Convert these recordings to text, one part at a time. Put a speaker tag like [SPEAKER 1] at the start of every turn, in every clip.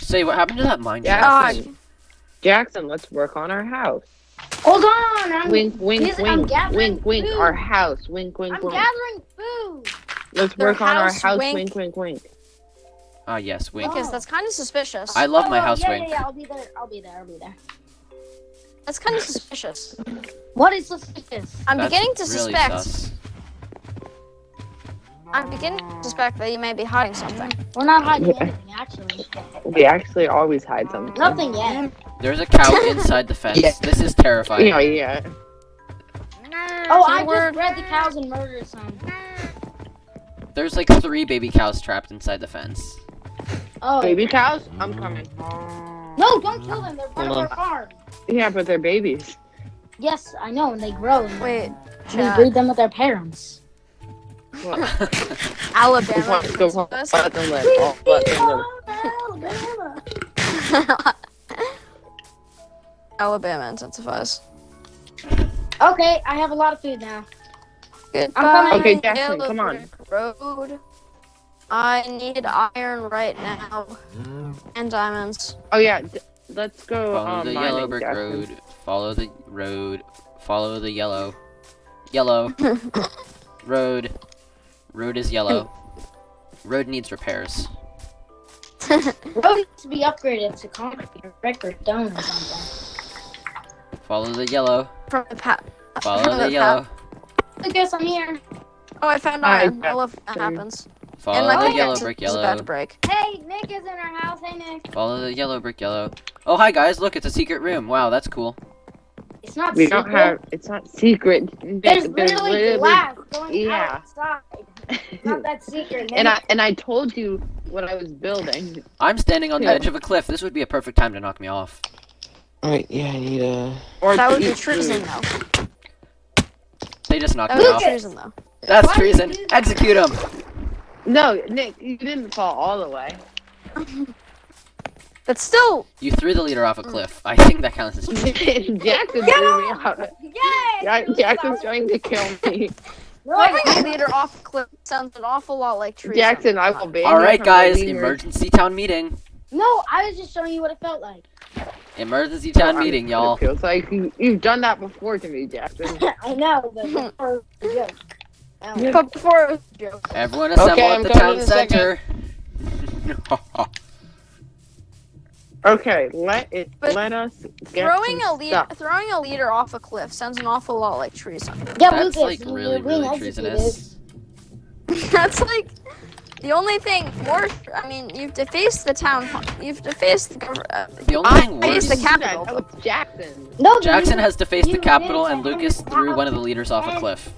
[SPEAKER 1] say what happened to that mine shaft?
[SPEAKER 2] Ah,
[SPEAKER 3] Jackson, Jackson, let's work on our house.
[SPEAKER 4] Hold on, I'm,
[SPEAKER 3] Wink, wink,
[SPEAKER 4] Yes, I'm
[SPEAKER 3] wink,
[SPEAKER 4] gathering
[SPEAKER 3] wink, wink.
[SPEAKER 4] food.
[SPEAKER 3] Our house. Wink,
[SPEAKER 4] I'm
[SPEAKER 3] wink, wink.
[SPEAKER 4] gathering food.
[SPEAKER 3] Let's
[SPEAKER 2] Their
[SPEAKER 3] work on our
[SPEAKER 2] house,
[SPEAKER 3] house.
[SPEAKER 2] wink.
[SPEAKER 3] Wink, wink, wink.
[SPEAKER 1] Ah, yes, wink.
[SPEAKER 2] Because that's kind of suspicious.
[SPEAKER 1] I love
[SPEAKER 4] Oh,
[SPEAKER 1] my
[SPEAKER 4] no,
[SPEAKER 1] house
[SPEAKER 4] yeah,
[SPEAKER 1] wing.
[SPEAKER 4] Yeah, yeah, I'll be there. I'll be there. I'll be there.
[SPEAKER 2] That's kind of suspicious.
[SPEAKER 4] What is suspicious?
[SPEAKER 2] I'm
[SPEAKER 1] That's
[SPEAKER 2] beginning to
[SPEAKER 1] really
[SPEAKER 2] suspect.
[SPEAKER 1] sus.
[SPEAKER 2] I'm beginning to suspect that you may be hiding something.
[SPEAKER 4] We're not hiding
[SPEAKER 3] Yeah.
[SPEAKER 4] anything, actually.
[SPEAKER 3] We actually always hide something.
[SPEAKER 4] Nothing yet.
[SPEAKER 1] There's a cow inside the fence.
[SPEAKER 3] Yeah.
[SPEAKER 1] This is terrifying.
[SPEAKER 3] You know, yeah.
[SPEAKER 4] Oh, I
[SPEAKER 2] Keyword.
[SPEAKER 4] just bred the cows and murdered some.
[SPEAKER 1] There's like three baby cows trapped inside the fence.
[SPEAKER 4] Oh.
[SPEAKER 3] Baby cows?
[SPEAKER 5] mm.
[SPEAKER 3] I'm coming.
[SPEAKER 4] No, don't kill them. They're part of
[SPEAKER 3] Hold
[SPEAKER 4] our
[SPEAKER 3] on.
[SPEAKER 4] farm.
[SPEAKER 3] Yeah, but they're babies.
[SPEAKER 4] Yes, I know, and they grow. And
[SPEAKER 2] Wait,
[SPEAKER 4] We
[SPEAKER 2] Jack,
[SPEAKER 4] breed them with their parents.
[SPEAKER 3] Well,
[SPEAKER 2] Alabama.
[SPEAKER 3] just want to go
[SPEAKER 2] is
[SPEAKER 3] let
[SPEAKER 2] this?
[SPEAKER 3] them live. I'll let them live.
[SPEAKER 2] Alabama intensifies.
[SPEAKER 4] Okay, I have a lot of food now.
[SPEAKER 2] Goodbye.
[SPEAKER 4] coming.
[SPEAKER 3] Okay, Jackson, come on.
[SPEAKER 2] Gilbert Road. I need iron right now and diamonds.
[SPEAKER 3] Oh yeah, d- let's go.
[SPEAKER 1] Follow
[SPEAKER 2] Oh,
[SPEAKER 3] um,
[SPEAKER 1] the
[SPEAKER 3] mining,
[SPEAKER 1] yellow brick
[SPEAKER 3] Jackson.
[SPEAKER 1] road. Follow the road. Follow the yellow. Yellow. road. Road is yellow.
[SPEAKER 2] Hmm.
[SPEAKER 1] Road needs repairs.
[SPEAKER 4] Road needs to be upgraded to concrete or brick or stone or something.
[SPEAKER 1] Follow the yellow.
[SPEAKER 2] From the path.
[SPEAKER 1] Follow the yellow.
[SPEAKER 4] I guess I'm here.
[SPEAKER 2] Oh, I found
[SPEAKER 3] Hi,
[SPEAKER 2] iron. I love when that
[SPEAKER 3] Jackson.
[SPEAKER 2] happens. and my
[SPEAKER 1] Follow the
[SPEAKER 2] pickaxe
[SPEAKER 1] yellow brick
[SPEAKER 2] is about
[SPEAKER 1] yellow.
[SPEAKER 2] to break.
[SPEAKER 4] Hey, Nick is in our house. Hey, Nick.
[SPEAKER 1] Follow the yellow brick yellow. Oh hi guys, look it's a secret room. Wow, that's cool.
[SPEAKER 4] It's not
[SPEAKER 3] We
[SPEAKER 4] secret.
[SPEAKER 3] don't have. It's not secret.
[SPEAKER 4] There's
[SPEAKER 3] They're
[SPEAKER 4] literally glass going
[SPEAKER 3] yeah.
[SPEAKER 4] outside. It's Not that secret.
[SPEAKER 3] And
[SPEAKER 4] Nick.
[SPEAKER 3] I and I told you what I was building.
[SPEAKER 1] I'm standing on the
[SPEAKER 3] Yeah.
[SPEAKER 1] edge of a cliff. This would be a perfect time to knock me off.
[SPEAKER 5] Alright, yeah, I need a.
[SPEAKER 3] Or
[SPEAKER 2] that
[SPEAKER 3] to
[SPEAKER 2] would be
[SPEAKER 3] eat
[SPEAKER 2] treason,
[SPEAKER 3] food.
[SPEAKER 2] though.
[SPEAKER 1] They just knocked
[SPEAKER 2] That
[SPEAKER 1] me
[SPEAKER 2] would
[SPEAKER 1] off.
[SPEAKER 2] be treason, though.
[SPEAKER 1] That's
[SPEAKER 4] Why do you
[SPEAKER 1] treason.
[SPEAKER 4] do that?
[SPEAKER 1] Execute him.
[SPEAKER 3] No, Nick, you didn't fall all the way.
[SPEAKER 2] But still,
[SPEAKER 1] You threw the leader off a cliff. I think that counts as treason.
[SPEAKER 3] Jackson threw me out.
[SPEAKER 4] Yay!
[SPEAKER 3] Ja-
[SPEAKER 4] I'm
[SPEAKER 3] Jackson's
[SPEAKER 4] sorry.
[SPEAKER 3] trying to kill me.
[SPEAKER 4] No, I
[SPEAKER 2] throwing a leader off a cliff sounds an awful lot like treason.
[SPEAKER 3] Jackson, I will ban you.
[SPEAKER 1] All right,
[SPEAKER 3] from
[SPEAKER 1] guys.
[SPEAKER 3] leaving your-
[SPEAKER 1] Emergency town meeting.
[SPEAKER 4] no, I was just showing you what it felt like.
[SPEAKER 1] Emergency town
[SPEAKER 3] Oh, I'm-
[SPEAKER 1] meeting,
[SPEAKER 3] it
[SPEAKER 1] y'all.
[SPEAKER 3] Feels like you, you've done that before to me, Jackson.
[SPEAKER 4] I know, but for a joke. Oh.
[SPEAKER 2] But before it was a joke.
[SPEAKER 1] Everyone assemble
[SPEAKER 3] Okay,
[SPEAKER 1] at
[SPEAKER 3] I'm
[SPEAKER 1] the
[SPEAKER 3] coming
[SPEAKER 1] town
[SPEAKER 3] in a
[SPEAKER 1] center.
[SPEAKER 3] second. Okay, let it.
[SPEAKER 2] But
[SPEAKER 3] let us get
[SPEAKER 2] Throwing a
[SPEAKER 3] some
[SPEAKER 2] leader,
[SPEAKER 3] stuff.
[SPEAKER 2] throwing a leader off a cliff sounds an awful lot like treason.
[SPEAKER 4] Yeah,
[SPEAKER 1] That's
[SPEAKER 4] Lucas,
[SPEAKER 1] like
[SPEAKER 4] you-
[SPEAKER 1] really,
[SPEAKER 4] you're being
[SPEAKER 1] really
[SPEAKER 4] executed.
[SPEAKER 1] treasonous.
[SPEAKER 2] That's like the only thing worse. I mean, you've defaced the town. hu- You've defaced the government. Uh,
[SPEAKER 1] The only thing
[SPEAKER 2] I
[SPEAKER 1] worse.
[SPEAKER 2] used the
[SPEAKER 3] That-
[SPEAKER 2] capital.
[SPEAKER 3] That was Jackson.
[SPEAKER 4] No, dude,
[SPEAKER 1] Jackson has defaced the
[SPEAKER 4] you
[SPEAKER 1] capital,
[SPEAKER 4] did
[SPEAKER 1] and
[SPEAKER 4] that.
[SPEAKER 1] Lucas threw one of the leaders off a cliff.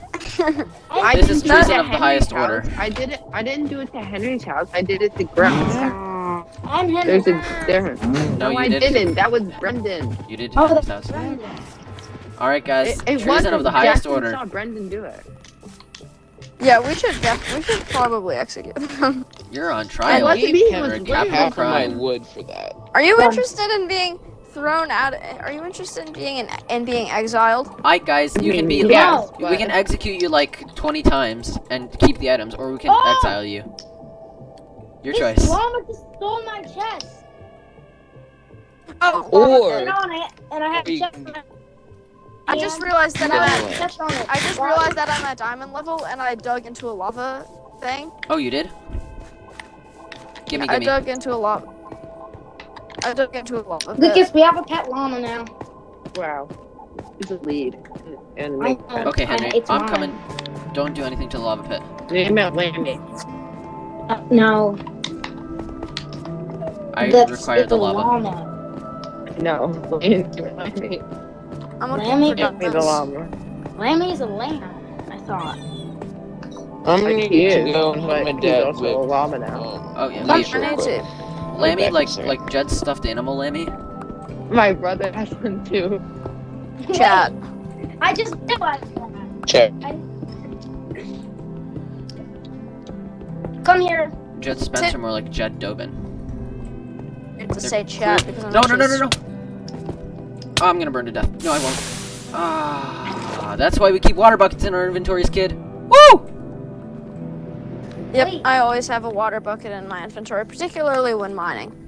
[SPEAKER 3] I
[SPEAKER 1] This is
[SPEAKER 3] didn't
[SPEAKER 1] treason
[SPEAKER 3] do it to
[SPEAKER 1] of the
[SPEAKER 3] Henry's
[SPEAKER 1] highest
[SPEAKER 3] house.
[SPEAKER 1] order.
[SPEAKER 3] I did it. I didn't do it to Henry's house. I did it to
[SPEAKER 2] Ah.
[SPEAKER 3] Grum's house.
[SPEAKER 4] I'm him.
[SPEAKER 3] There's a difference.
[SPEAKER 1] No, you
[SPEAKER 3] I
[SPEAKER 1] didn't.
[SPEAKER 3] didn't. That was Brendan.
[SPEAKER 1] You did.
[SPEAKER 4] Oh,
[SPEAKER 1] That
[SPEAKER 4] that's
[SPEAKER 1] was-
[SPEAKER 4] Brandon.
[SPEAKER 1] All right, guys.
[SPEAKER 3] It, it
[SPEAKER 1] Treason
[SPEAKER 3] wasn't.
[SPEAKER 1] of the highest
[SPEAKER 3] Jackson
[SPEAKER 1] order.
[SPEAKER 3] Saw Brendan do it.
[SPEAKER 2] yeah, we should. Def- we should probably execute them.
[SPEAKER 1] You're on
[SPEAKER 3] I
[SPEAKER 1] trial.
[SPEAKER 3] want
[SPEAKER 5] Leave
[SPEAKER 3] to be
[SPEAKER 1] him
[SPEAKER 3] was
[SPEAKER 1] or
[SPEAKER 3] Brendan.
[SPEAKER 1] Capital
[SPEAKER 5] Half of my
[SPEAKER 1] crime.
[SPEAKER 5] wood for that.
[SPEAKER 2] Are you interested in being thrown out? eh, Are you interested in being in, in being exiled?
[SPEAKER 1] All right, guys. You can be.
[SPEAKER 4] Yeah.
[SPEAKER 3] Yes,
[SPEAKER 1] We can execute you like 20 times and keep the items, or we can
[SPEAKER 4] Oh!
[SPEAKER 1] exile you. Your
[SPEAKER 4] This
[SPEAKER 1] choice.
[SPEAKER 4] llama just stole my chest.
[SPEAKER 2] Oh,
[SPEAKER 4] And
[SPEAKER 5] Or.
[SPEAKER 4] on it, and I have
[SPEAKER 5] We-
[SPEAKER 4] chest on it.
[SPEAKER 2] I just realized that
[SPEAKER 4] And I
[SPEAKER 2] I'm. At,
[SPEAKER 4] have chest on it.
[SPEAKER 2] I just
[SPEAKER 4] Why-
[SPEAKER 2] realized that I'm at diamond level, and I dug into a lava thing.
[SPEAKER 1] Oh, you did. Gimme,
[SPEAKER 2] I
[SPEAKER 1] gimme.
[SPEAKER 2] dug into a lava. I dug into a lava. pit.
[SPEAKER 4] Lucas, we have a pet llama now.
[SPEAKER 3] Wow. He's a lead. And Oh,
[SPEAKER 4] I
[SPEAKER 3] make
[SPEAKER 4] know.
[SPEAKER 1] Okay, Henry,
[SPEAKER 4] It's
[SPEAKER 1] I'm
[SPEAKER 4] mine.
[SPEAKER 1] coming. Don't do anything to the lava pit.
[SPEAKER 3] name it Lammy.
[SPEAKER 4] Uh, no,
[SPEAKER 1] I
[SPEAKER 4] that's
[SPEAKER 1] require the
[SPEAKER 4] the
[SPEAKER 1] lava.
[SPEAKER 4] llama.
[SPEAKER 3] No. Name it Lammy.
[SPEAKER 2] I'm
[SPEAKER 4] Lammy
[SPEAKER 2] looking for
[SPEAKER 3] Give me the
[SPEAKER 2] diamonds.
[SPEAKER 3] llama.
[SPEAKER 4] Lammy's a lamb, I thought.
[SPEAKER 5] I'm gonna
[SPEAKER 3] Like,
[SPEAKER 5] need to
[SPEAKER 3] is,
[SPEAKER 5] go and help
[SPEAKER 3] but
[SPEAKER 5] my
[SPEAKER 3] he's
[SPEAKER 5] dad
[SPEAKER 3] also
[SPEAKER 5] with.
[SPEAKER 3] a llama now.
[SPEAKER 5] Um,
[SPEAKER 1] Oh yeah,
[SPEAKER 5] Not
[SPEAKER 1] wait,
[SPEAKER 5] sure.
[SPEAKER 2] I need to.
[SPEAKER 1] Lammy,
[SPEAKER 5] back
[SPEAKER 1] like
[SPEAKER 5] inside.
[SPEAKER 1] like Jed's stuffed animal, Lammy.
[SPEAKER 3] My brother has one too.
[SPEAKER 2] Chat.
[SPEAKER 4] I just realized that.
[SPEAKER 5] Check.
[SPEAKER 4] Come here.
[SPEAKER 1] Jed Spencer, more like Jed Dobin.
[SPEAKER 2] I need to
[SPEAKER 1] They're
[SPEAKER 2] say chat because I'm
[SPEAKER 1] No, no, no, no,
[SPEAKER 2] actually-
[SPEAKER 1] no. Oh, I'm gonna burn to death. No, I won't. Ah, that's why we keep water buckets in our inventories, kid. Woo!
[SPEAKER 2] Yep,
[SPEAKER 4] Wait.
[SPEAKER 2] I always have a water bucket in my inventory, particularly when mining.